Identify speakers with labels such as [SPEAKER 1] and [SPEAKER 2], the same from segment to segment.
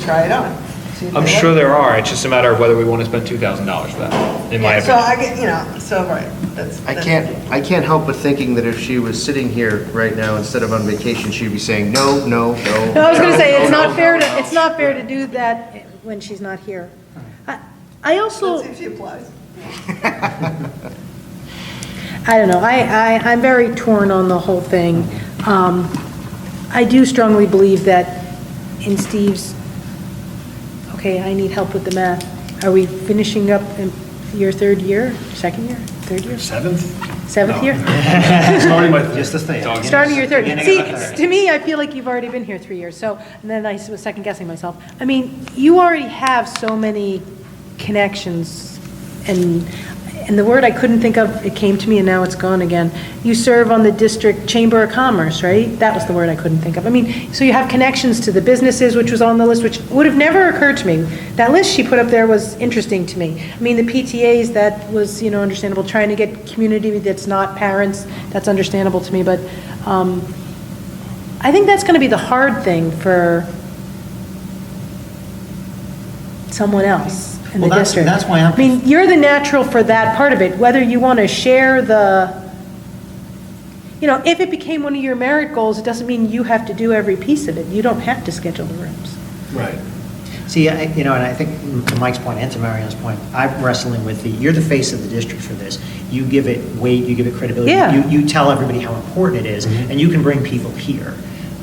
[SPEAKER 1] try it on. See if
[SPEAKER 2] I'm
[SPEAKER 1] they like
[SPEAKER 2] sure
[SPEAKER 1] it.
[SPEAKER 2] there are, it's just a matter of whether we want to spend $2,000 for that, in my
[SPEAKER 1] Yeah, So
[SPEAKER 2] opinion.
[SPEAKER 1] I get, you know, so, right, that's.
[SPEAKER 3] I
[SPEAKER 1] that's-
[SPEAKER 3] can't, I can't help but thinking that if she was sitting here right now instead of on vacation, she'd be saying, no, no, no.
[SPEAKER 4] No, I was going to say, it's
[SPEAKER 3] no,
[SPEAKER 4] not
[SPEAKER 3] no,
[SPEAKER 4] fair to,
[SPEAKER 3] no."
[SPEAKER 4] it's not fair to do that when she's not here. I I
[SPEAKER 1] Let's
[SPEAKER 4] also,
[SPEAKER 1] see if she applies.
[SPEAKER 4] I don't know, I, I, I'm very torn on the whole thing. Um, I do strongly believe that in Steve's, okay, I need help with the math. Are we finishing up in your third year, second year, third year,
[SPEAKER 5] Seventh?
[SPEAKER 4] seventh
[SPEAKER 5] No.
[SPEAKER 4] year?
[SPEAKER 5] Starting with, just this thing.
[SPEAKER 4] Starting your third.
[SPEAKER 5] Beginning
[SPEAKER 4] See,
[SPEAKER 5] of the third.
[SPEAKER 4] to me, I feel like you've already been here three years, so, and then I was second guessing myself. I mean, you already have so many connections, and, and the word I couldn't think of, it came to me and now it's gone again. You serve on the district chamber of commerce, right? That was the word I couldn't think of. I mean, so you have connections to the businesses, which was on the list, which would have never occurred to me. That list she put up there was interesting to me. I mean, the PTAs, that was, you know, understandable, trying to get community that's not parents, that's understandable to me, but, um, I think that's going to be the hard thing for someone else in the
[SPEAKER 5] Well, that's-
[SPEAKER 4] district.
[SPEAKER 5] that's why I'm-
[SPEAKER 4] I mean, you're the natural for that part of it, whether you want to share the, you know, if it became one of your merit goals, it doesn't mean you have to do every piece of it. You don't have to schedule the rooms.
[SPEAKER 5] Right. See, I, you know, and I think to Mike's point and to Marion's point, I'm wrestling with the, you're the face of the district for this. You give it weight, you give it credibility.
[SPEAKER 4] Yeah.
[SPEAKER 5] You, you tell everybody how important it is,
[SPEAKER 6] Mm-hmm.
[SPEAKER 5] and you can bring people here.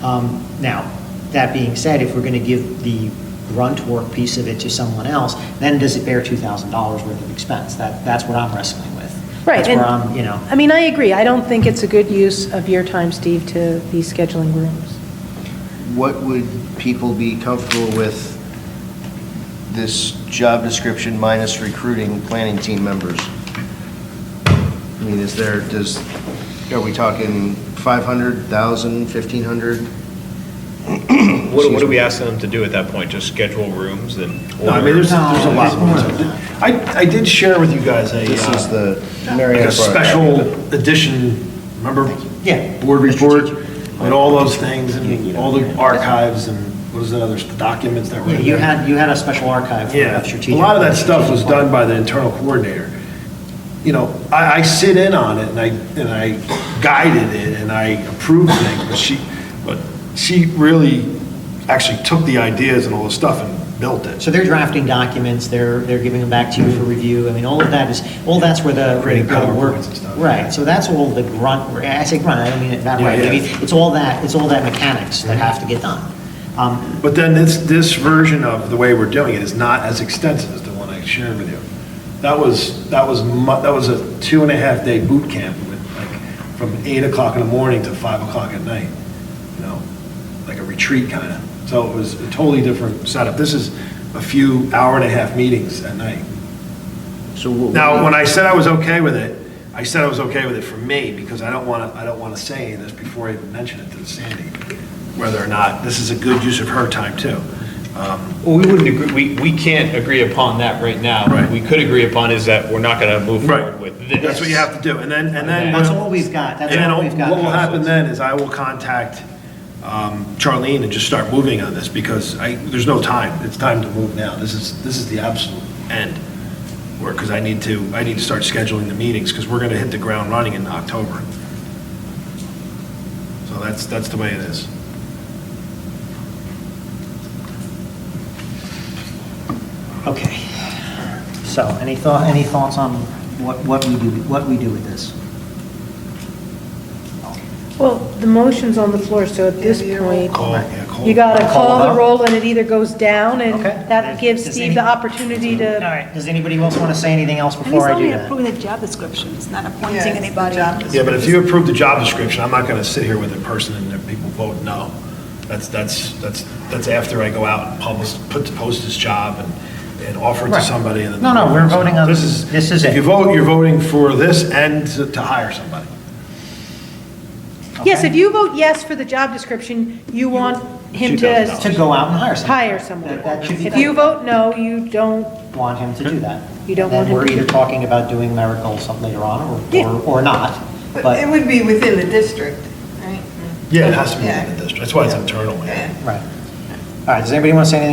[SPEAKER 5] Um, Now, that being said, if we're going to give the grunt work piece of it to someone else, then does it bear $2,000 worth of expense? That, that's what I'm wrestling with.
[SPEAKER 4] Right.
[SPEAKER 5] That's
[SPEAKER 4] and-
[SPEAKER 5] where I'm, you know.
[SPEAKER 4] I mean, I agree. I don't think it's a good use of your time, Steve, to be scheduling rooms.
[SPEAKER 3] What would people be comfortable with this job description minus recruiting planning team members? I mean, is there, does, are we talking 500,000, 1,500?
[SPEAKER 2] What what are we asking them to do at that point, just schedule rooms and?
[SPEAKER 6] No, I mean, there's, there's a lot more. I, I did share with you guys a,
[SPEAKER 3] This is
[SPEAKER 6] uh,
[SPEAKER 3] the
[SPEAKER 6] like
[SPEAKER 3] Marietta.
[SPEAKER 6] a special edition, remember?
[SPEAKER 5] Yeah.
[SPEAKER 6] Board report
[SPEAKER 5] Strategic.
[SPEAKER 6] and all those things and all the archives and what was that other, the documents that were.
[SPEAKER 5] Yeah,
[SPEAKER 6] in
[SPEAKER 5] You
[SPEAKER 6] there.
[SPEAKER 5] had, you had a special archive
[SPEAKER 6] Yeah,
[SPEAKER 5] for
[SPEAKER 6] a
[SPEAKER 5] strategic.
[SPEAKER 6] lot of that stuff was done by the internal coordinator. You know, I, I sit in on it and I, and I guided it and I approved things, but she, but she really actually took the ideas and all the stuff and built it.
[SPEAKER 5] So they're drafting documents, they're, they're giving them back to you for review, I mean, all of that is, all that's where the.
[SPEAKER 6] Creating
[SPEAKER 5] where the work-
[SPEAKER 6] PowerPoints and stuff.
[SPEAKER 5] Right, so that's all the grunt, I say grunt, I don't mean it that way,
[SPEAKER 6] Yeah,
[SPEAKER 5] I
[SPEAKER 6] yeah.
[SPEAKER 5] mean, it's all that, it's all that mechanics that have to get done. Um,
[SPEAKER 6] But then this, this version of the way we're doing it is not as extensive as the one I shared with you. That was, that was, mu- that was a two and a half day boot camp with like, from eight o'clock in the morning to five o'clock at night, you know, like a retreat kind of. So it was a totally different setup. This is a few hour and a half meetings at night.
[SPEAKER 3] So what-
[SPEAKER 6] Now, when I said I was okay with it, I said I was okay with it for me, because I don't want to, I don't want to say this before I even mention it to Sandy, whether or not this is a good use of her time, too. Um,
[SPEAKER 2] Well, we wouldn't agree, we, we can't agree upon that right now.
[SPEAKER 6] Right.
[SPEAKER 2] What we could agree upon is that we're not going to move
[SPEAKER 6] Right.
[SPEAKER 2] forward with this.
[SPEAKER 6] That's what you have to do, and then, and then.
[SPEAKER 5] That's all we've got. That's
[SPEAKER 6] And then
[SPEAKER 5] all we've got.
[SPEAKER 6] What will happen then is I will contact um, Charlene and just start moving on this, because I, there's no time. It's time to move now. This is, this is the absolute end, where, because I need to, I need to start scheduling the meetings, because we're going to hit the ground running in October. So that's, that's the way it is.
[SPEAKER 5] Okay, so, any thought, any thoughts on what, what we do, what we do with this?
[SPEAKER 4] Well, the motion's on the floor, so at this
[SPEAKER 1] Yeah, you're right.
[SPEAKER 4] point,
[SPEAKER 6] Call, yeah, call.
[SPEAKER 4] you gotta
[SPEAKER 5] Call
[SPEAKER 4] call the
[SPEAKER 5] vote.
[SPEAKER 4] roll, and it either goes down, and
[SPEAKER 5] Okay.
[SPEAKER 4] that gives
[SPEAKER 5] Does
[SPEAKER 4] Steve the
[SPEAKER 5] any-
[SPEAKER 4] opportunity
[SPEAKER 5] All
[SPEAKER 4] to,
[SPEAKER 5] right, does anybody else want to say anything else
[SPEAKER 7] And he's
[SPEAKER 5] before I do
[SPEAKER 7] only
[SPEAKER 5] that?
[SPEAKER 7] approving the job description, it's not
[SPEAKER 1] Yeah,
[SPEAKER 7] appointing
[SPEAKER 1] it's the
[SPEAKER 7] anybody.
[SPEAKER 1] job
[SPEAKER 6] Yeah, but if you approve the job description, I'm not going to sit here with a person and then people vote no. That's, that's, that's, that's after I go out and publish, put, post this job and, and offer it to
[SPEAKER 5] Right.
[SPEAKER 6] somebody and then.
[SPEAKER 5] No, no, we're voting on-
[SPEAKER 6] This is.
[SPEAKER 5] this is it.
[SPEAKER 6] If you vote, you're voting for this and to to hire somebody.
[SPEAKER 4] yes,
[SPEAKER 5] Okay.
[SPEAKER 4] if you vote yes for the job description, you want him
[SPEAKER 5] To
[SPEAKER 4] to
[SPEAKER 5] go out and hire someone.
[SPEAKER 4] hire someone.
[SPEAKER 5] That- that should be-
[SPEAKER 4] If you vote no, you don't,
[SPEAKER 5] want him to do that.
[SPEAKER 4] You don't want him to
[SPEAKER 5] And Then we're
[SPEAKER 4] do
[SPEAKER 5] either talking about doing miracles some later on, or,
[SPEAKER 4] Yeah.
[SPEAKER 5] or or not,
[SPEAKER 1] But it
[SPEAKER 5] but,
[SPEAKER 1] would be within the district.
[SPEAKER 6] Yeah, it has to be
[SPEAKER 1] Yeah.
[SPEAKER 6] within the district. That's why it's internal, man.
[SPEAKER 1] Yeah.
[SPEAKER 5] right. All right, does anybody want to say anything